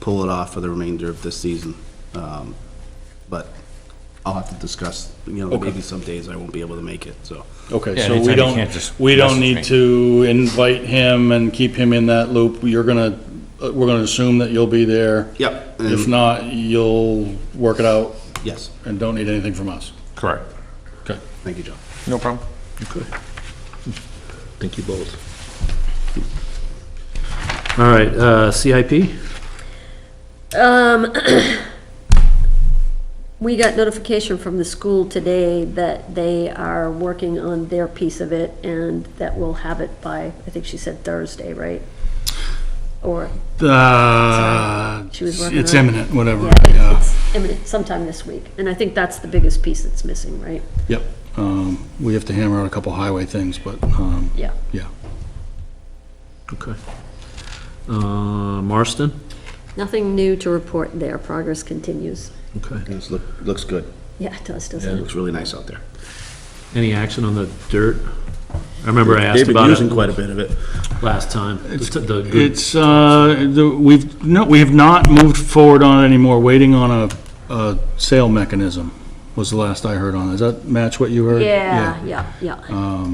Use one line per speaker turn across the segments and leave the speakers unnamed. pull it off for the remainder of this season. Um, But I'll have to discuss, you know, maybe some days I won't be able to make it, so.
Okay,
Yeah,
so
anytime
we
you
don't,
can't just
we don't
message
need
me.
to invite him and keep him in that loop. You're gonna, uh, we're gonna assume that you'll be there.
Yep. and-
If not, you'll work it out
Yes,
and don't need anything from us.
Correct.
Okay.
thank you, John.
No problem.
Thank you both. All right, uh, CIP?
Um, We got notification from the school today that they are working on their piece of it, and that we'll have it by, I think she said Thursday, right? Or,
Uh,
She was working
it's
on it.
imminent, whatever,
yeah,
yeah.
it's imminent, sometime this week. And I think that's the biggest piece that's missing, right?
Yep. Um, we have to hammer out a couple highway things, but, um,
Yeah.
yeah.
Okay. Uh, Marston?
Nothing new to report there. Progress continues.
Okay.
This look, looks good.
Yeah, it does, doesn't
It
it?
looks really nice out there.
Any action on the dirt? I remember I
They've
asked
been
about
using quite
it
a bit of it.
last time. The t- the good-
It's, uh, the- we've, no, we have not moved forward on it anymore, waiting on a, a sale mechanism was the last I heard on it. Does that match what you heard?
Yeah, yeah, Uh. yeah.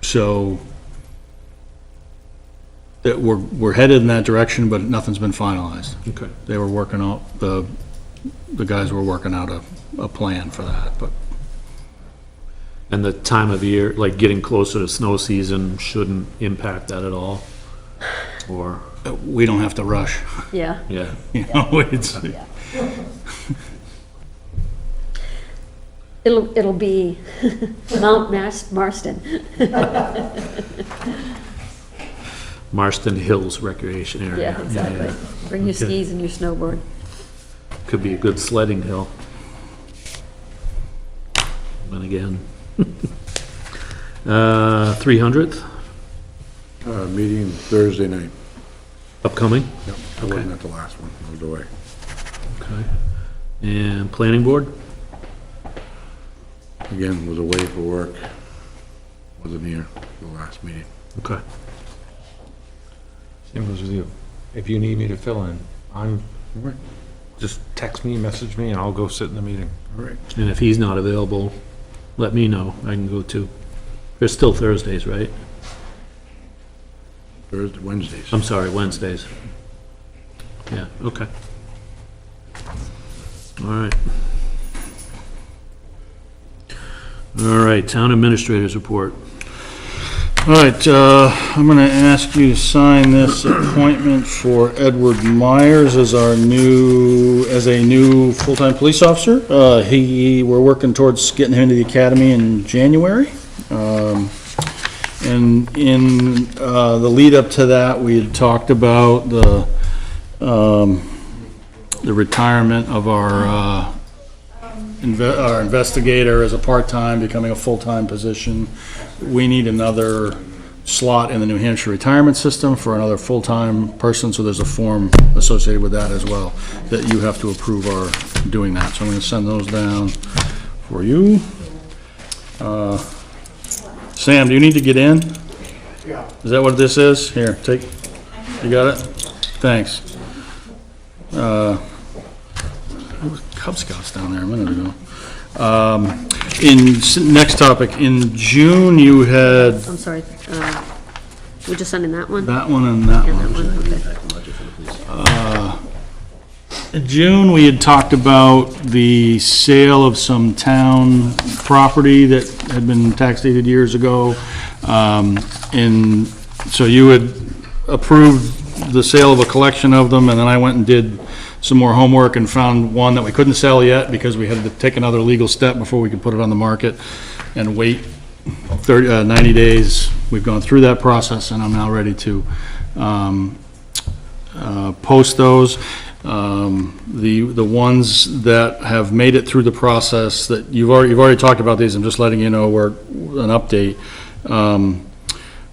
So that we're, we're headed in that direction, but nothing's been finalized.
Okay,
They were working out, the, the guys were working out a, a plan for that, but
and the time of year, like getting closer to snow season shouldn't impact that at all? Or,
we don't have to rush,
Yeah.
yeah,
you know, it's,
It'll, it'll be Mount Mas- Marston.
Marston Hills Recreation Area.
Yeah, exactly. Bring your
Okay.
skis and your snowboard.
Could be a good sledding hill. And again, uh, 300th
Uh, meeting Thursday night.
upcoming,
Yep, I wasn't at the last one, I was away.
okay. And planning board,
Again, was away for work. Wasn't here for the last meeting.
okay.
Same goes with you. If you need me to fill in, I'm, just text me, message me, and I'll go sit in the meeting.
All right.
And if he's not available, let me know, I can go too. There's still Thursdays, right?
Thursday, Wednesdays.
I'm sorry, Wednesdays. Yeah, okay. All right. All right, town administrators report.
All right, uh, I'm going to ask you to sign this appointment for Edward Myers as our new, as a new full-time police officer. Uh, He, we're working towards getting him into the academy in January. Um, And in uh, the lead-up to that, we had talked about the, um, the retirement of our uh, inve- our investigator as a part-time, becoming a full-time position. We need another slot in the New Hampshire retirement system for another full-time person, so there's a form associated with that as well, that you have to approve our doing that. So I'm gonna send those down for you. Uh, Sam, do you need to get in? Yeah. Is that what this is? Here, take, you got it? Thanks. Uh, Cub Scouts down there a minute ago. Um, In, s- next topic, in June, you had
I'm sorry, uh, we're just sending that one?
that one and that
Yeah,
one.
that one, okay.
In June, we had talked about the sale of some town property that had been tax dated years ago. Um, And so you had approved the sale of a collection of them, and then I went and did some more homework and found one that we couldn't sell yet because we had to take another legal step before we could put it on the market and wait 30, uh, 90 days. We've gone through that process, and I'm now ready to um, uh, post those. Um, The, the ones that have made it through the process, that you've already, you've already talked about these, I'm just letting you know where, an update. Um,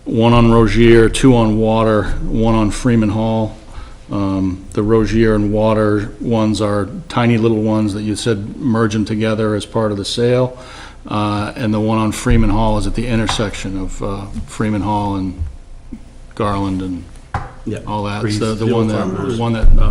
One on Rogier, two on Water, one on Freeman Hall. Um, The Rogier and Water ones are tiny little ones that you said merge them together as part of the sale. Uh, And the one on Freeman Hall is at the intersection of uh, Freeman Hall and Garland and
Yeah.
all that, It's the the
Freeze.
one that,
Farmhouse.
the one that uh,